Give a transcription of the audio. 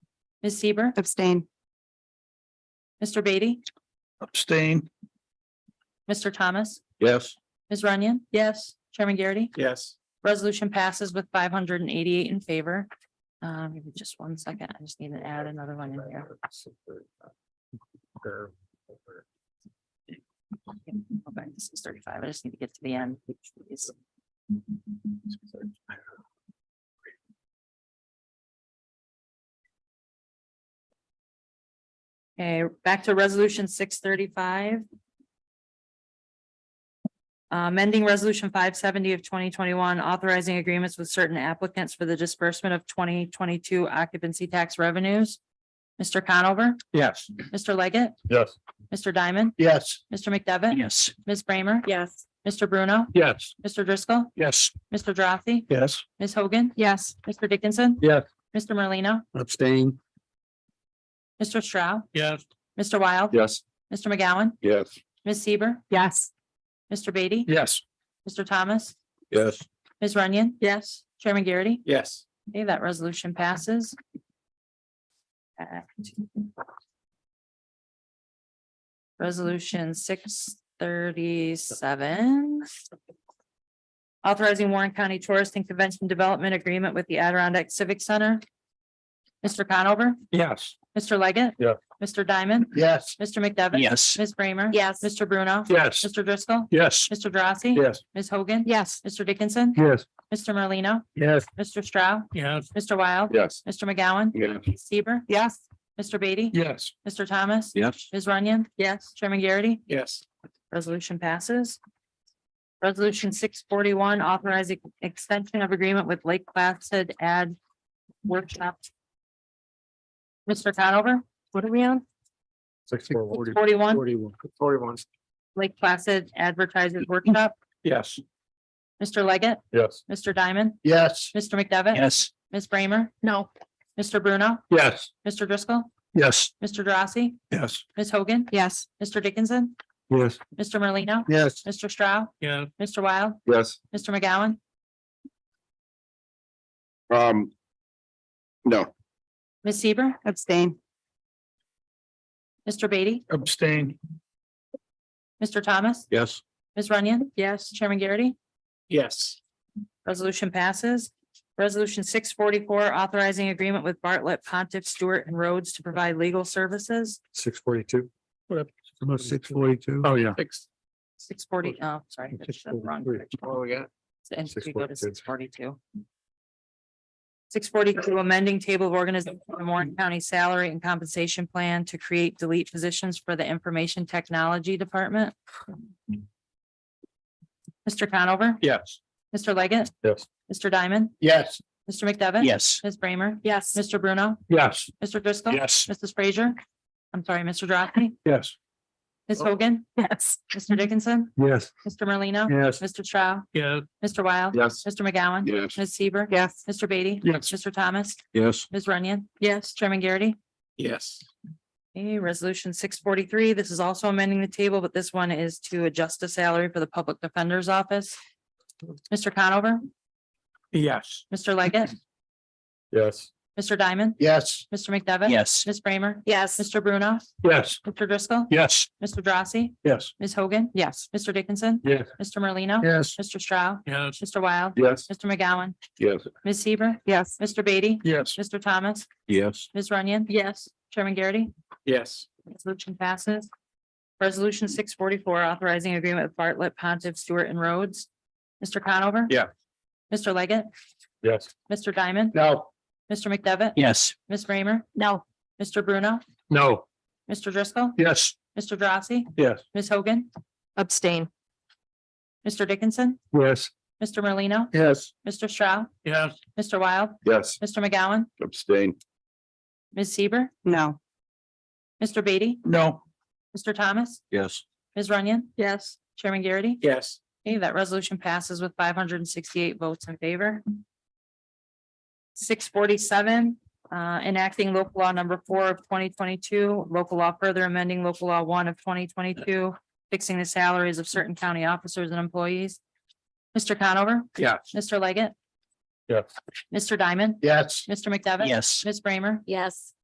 Ms. Seaver, Abstain. Mr. Beatty, Abstain. Mr. Thomas, Yes. Ms. Runyon. Yes. Chairman Garrity. Yes. Resolution passes with five hundred and eighty-eight in favor. Um, give me just one second. I just need to add another one in here. Okay, this is thirty-five. I just need to get to the end. Okay, back to resolution six thirty-five. Uh, Amending Resolution five seventy of twenty twenty-one, authorizing agreements with certain applicants for the disbursement of twenty twenty-two occupancy tax revenues. Mr. Conover, Yes. Mr. Leggett, Yes. Mr. Diamond, Yes. Mr. McDevitt, Yes. Ms. Bramer, Yes. Mr. Bruno, Yes. Mr. Driscoll, Yes. Mr. Drossy, Yes. Ms. Hogan, Yes. Mr. Dickinson. Yes. Mr. Merlino, Abstain. Mr. Stroud, Yes. Mr. Wild, Yes. Mr. McGowan, Yes. Ms. Seaver, Yes. Mr. Beatty, Yes. Mr. Thomas, Yes. Ms. Runyon, Yes. Chairman Garrity. Yes. Okay, that resolution passes. Uh, Act. Resolution six thirty-seven. Authorizing Warren County Tourist and Convention Development Agreement with the Adirondack Civic Center. Mr. Conover, Yes. Mr. Leggett. Yeah. Mr. Diamond, Yes. Mr. McDevitt. Yes. Ms. Bramer. Yes. Mr. Bruno. Yes. Mr. Driscoll. Yes. Mr. Drossy. Yes. Ms. Hogan. Yes. Mr. Dickinson. Yes. Mr. Merlino. Yes. Mr. Stroud. Yes. Mr. Wild. Yes. Mr. McGowan. Yes. Ms. Seaver, Yes. Mr. Beatty, Yes. Mr. Thomas, Yes. Ms. Runyon, Yes. Chairman Garrity, Yes. resolution passes. Resolution six forty-one, authorizing extension of agreement with Lake Placid Ad Workshop. Mr. Conover, What are we on? Six, four, forty, forty-one, forty-one. Forty-one. Lake Placid Advertisers Workshop, Yes. Mr. Leggett, Yes. Mr. Diamond, Yes. Mr. McDevitt, Yes. Ms. Bramer, No. Mr. Bruno, Yes. Mr. Driscoll, Yes. Mr. Drossy, Yes. Ms. Hogan, Yes. Mr. Dickinson, Yes. Mr. Merlino, Yes. Mr. Stroud, Yeah. Mr. Wild, Yes. Mr. McGowan, Um. No. Ms. Seaver, Abstain. Mr. Beatty, Abstain. Mr. Thomas, Yes. Ms. Runyon, Yes. Chairman Garrity, Yes. resolution passes. Resolution six forty-four, authorizing agreement with Bartlett, Pontiff, Stewart, and Rhodes to provide legal services. Six forty-two. Six forty-two. Oh, yeah. Six. Six forty, oh, sorry. that's the wrong direction. Oh, yeah. And we go to 642. six forty-two. Six forty-two, amending table of organization for the Warren County Salary and Compensation Plan to create delete positions for the Information Technology Department. Mr. Conover, Yes. Mr. Leggett. Yes. Mr. Diamond, Yes. Mr. McDevitt. Yes. Ms. Bramer. Yes. Mr. Bruno, Yes. Mr. Driscoll. Yes. Mrs. Frazier. I'm sorry, Mr. Drossy, Yes. Ms. Oh. Hogan, Yes. Mr. Dickinson, Yes. Mr. Merlino. Yes. Mr. Trout, Yeah. Mr. Wild. Yes. Mr. McGowan. Yes. Ms. Seaver. Yes. Mr. Beatty. Yes. Mr. Thomas, Yes. Ms. Runyon. Yes. Chairman Garrity. Yes. Okay, resolution six forty-three. This is also amending the table, but this one is to adjust the salary for the public defender's office. Mr. Conover, Yes. Mr. Leggett, Yes. Mr. Diamond, Yes. Mr. McDevitt. Yes. Ms. Bramer, Yes. Mr. Bruno, Yes. Mr. Driscoll, Yes. Mr. Drossy, Yes. Ms. Hogan. Yes. Mr. Dickinson, Yes. Mr. Merlino. Yes. Mr. Stroud, Yes. Mr. Wild, Yes. Mr. McGowan, Yes. Ms. Seaver, Yes. Mr. Beatty, Yes. Mr. Thomas, Yes. Ms. Runyon. Yes. Chairman Garrity, Yes. resolution passes. Resolution six forty-four, authorizing agreement with Bartlett, Pontiff, Stewart, and Rhodes. Mr. Conover. Yeah. Mr. Leggett, Yes. Mr. Diamond, No. Mr. McDevitt, Yes. Ms. Bramer, No. Mr. Bruno, No. Mr. Driscoll, Yes. Mr. Drossy, Yes. Ms. Hogan, Abstain. Mr. Dickinson, Yes. Mr. Merlino, Yes. Mr. Stroud, Yes. Mr. Wild, Yes. Mr. McGowan, Abstain. Ms. Seaver, No. Mr. Beatty, No. Mr. Thomas, Yes. Ms. Runyon, Yes. Chairman Garrity. Yes. Okay, that resolution passes with five hundred and sixty-eight votes in favor. Six forty-seven, uh, enacting local law number four of twenty twenty-two, local law further amending local law one of twenty twenty-two, fixing the salaries of certain county officers and employees. Mr. Conover, Yes. Mr. Leggett, Yes. Mr. Diamond, Yes. Mr. McDevitt. Yes. Ms. Bramer, Yes.